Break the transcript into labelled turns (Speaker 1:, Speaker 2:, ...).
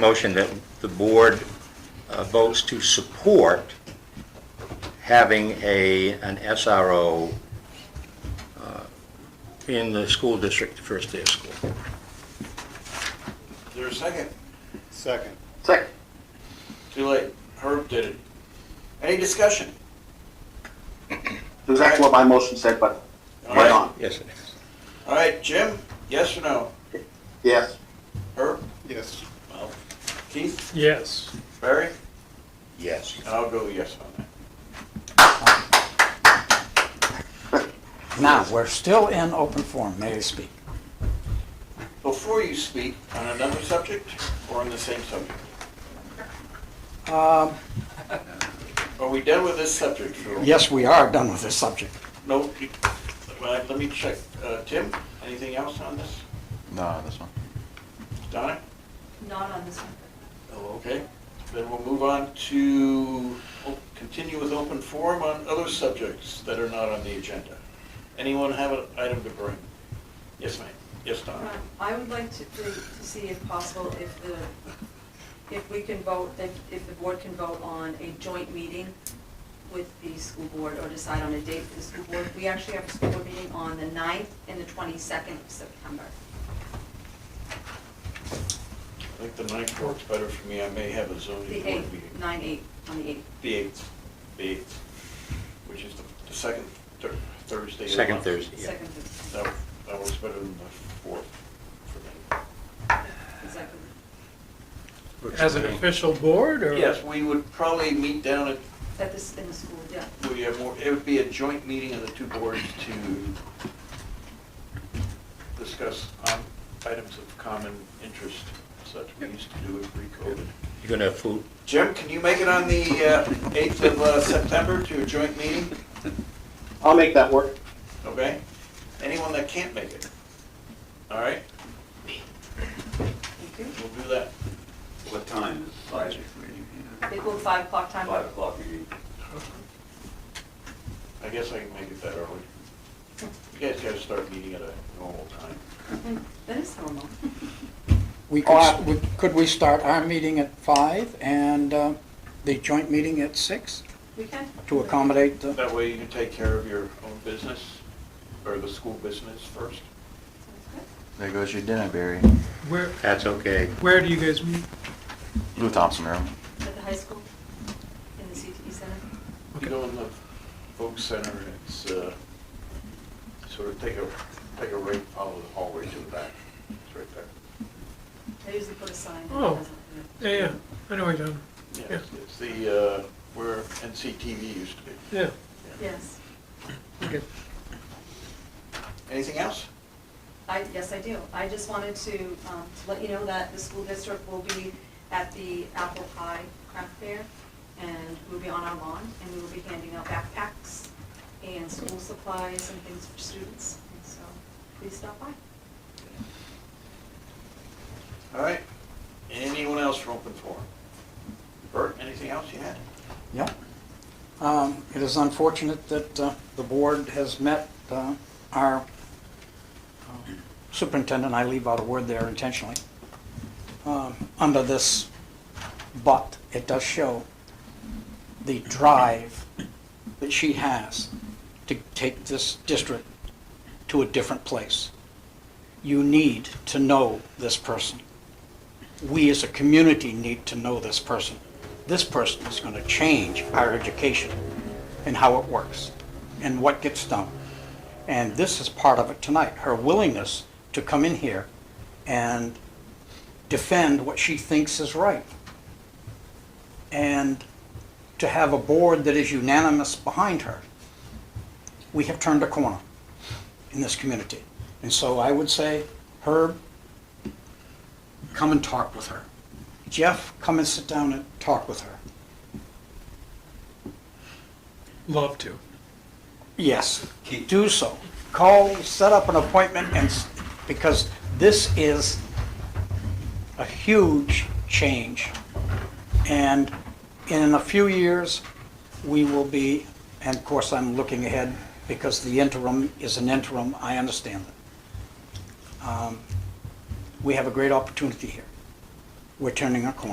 Speaker 1: motion that the board uh, votes to support having a, an SRO uh, in the school district the first day of school.
Speaker 2: Is there a second?
Speaker 3: Second.
Speaker 4: Second.
Speaker 2: Too late. Herb did it. Any discussion?
Speaker 4: Exactly what my motion said, but
Speaker 2: All
Speaker 4: right
Speaker 2: right,
Speaker 4: on.
Speaker 1: Yes, it is.
Speaker 2: all right, Jim, yes or no?
Speaker 4: Yes.
Speaker 2: Herb?
Speaker 3: Yes.
Speaker 2: Keith?
Speaker 5: Yes.
Speaker 2: Barry?
Speaker 1: Yes.
Speaker 2: And I'll go yes on that.
Speaker 6: Now, we're still in open forum, may I speak?
Speaker 2: Before you speak on another subject or on the same subject?
Speaker 6: Um,
Speaker 2: Are we done with this subject? Drew?
Speaker 6: Yes, we are done with this subject.
Speaker 2: No, you- well, let me check. Uh, Tim, anything else on this?
Speaker 7: No, this one.
Speaker 2: Donna?
Speaker 8: Not on this one.
Speaker 2: Oh, okay. Then we'll move on to, we'll continue with open forum on other subjects that are not on the agenda. Anyone have an item to bring? Yes, ma'am. Yes,
Speaker 8: Um,
Speaker 2: Donna?
Speaker 8: I would like to, to to see if possible, if the, if we can vote, that if the board can vote on a joint meeting with the school board or decide on a date for the school board. We actually have a school board meeting on the 9th and the 22nd of September.
Speaker 2: I think the ninth works better for me. I may have a
Speaker 8: The
Speaker 2: zoning board
Speaker 8: 8th,
Speaker 2: meeting.
Speaker 8: 9/8, on the 8th.
Speaker 2: The eighth, the eighth, which is the the second Thur- Thursday. of the
Speaker 1: Second
Speaker 2: month.
Speaker 1: Thursday, yeah.
Speaker 8: Second, Thursday.
Speaker 2: That that works better than the fourth for me.
Speaker 8: exactly.
Speaker 5: As an official board or?
Speaker 2: Yes, we would probably meet down at
Speaker 8: That this, in the school, yeah.
Speaker 2: We have more, it would be a joint meeting of the two boards to discuss um, items of common interest, such we used to do it pre-COVID.
Speaker 1: You're going to have food?
Speaker 2: Jim, can you make it on the uh, 8th of uh, September to a joint meeting?
Speaker 4: I'll make that work.
Speaker 2: Okay? Anyone that can't make it? All right,
Speaker 8: Thank you.
Speaker 2: we'll do that.
Speaker 7: What time is Friday meeting?
Speaker 8: It will 5 o'clock time.
Speaker 7: Five o'clock meeting.
Speaker 2: I guess I can make it that early. You guys gotta start meeting at a normal time.
Speaker 8: Mm-hmm. That is normal.
Speaker 6: We
Speaker 4: Oh,
Speaker 6: could,
Speaker 4: I-
Speaker 6: we- could we start our meeting at five and uh, the joint meeting at six
Speaker 8: We can.
Speaker 6: to accommodate the,
Speaker 2: That way you can take care of your own business, or the school business first.
Speaker 8: Sounds good.
Speaker 7: There goes your dinner, Barry.
Speaker 5: Where,
Speaker 1: That's okay.
Speaker 5: where do you guys meet?
Speaker 7: Lou Thompson room.
Speaker 8: At the high school, in the CTE center.
Speaker 2: You go in the Folk Center, and it's, uh, sort of take a, take a right, follow the hallway to the back. It's right there.
Speaker 8: I usually put a sign. that
Speaker 5: Oh.
Speaker 8: doesn't-
Speaker 5: Yeah, yeah, I know where you're down.
Speaker 2: Yeah, it's- it's the, uh, where NCTV used to be.
Speaker 5: Yeah,
Speaker 8: Yes,
Speaker 5: okay.
Speaker 2: Anything else?
Speaker 8: I, yes, I do. I just wanted to, um, to let you know that the school district will be at the apple pie craft fair, and we'll be on our lawn, and we will be handing out backpacks and school supplies and things for students, and so please stop by.
Speaker 2: All right. Anyone else from open forum? Bert, anything else you had?
Speaker 6: yeah. Um, It is unfortunate that uh, the board has met uh, our um, superintendent, I leave out a word there intentionally, um, under this, but it does show the drive that she has to take this district to a different place. You need to know this person. We as a community need to know this person. This person is going to change our education and how it works and what gets done. And this is part of it tonight, her willingness to come in here and defend what she thinks is right. And to have a board that is unanimous behind her. We have turned a corner in this community. And so I would say, Herb, come and talk with her. Jeff, come and sit down and talk with her.
Speaker 5: Love to.
Speaker 6: Yes, do so. Call, set up an appointment, and, s- because this is a huge change. And in a few years, we will be, and of course, I'm looking ahead, because the interim is an interim, I understand that. Um, We have a great opportunity here. we're turning a corner.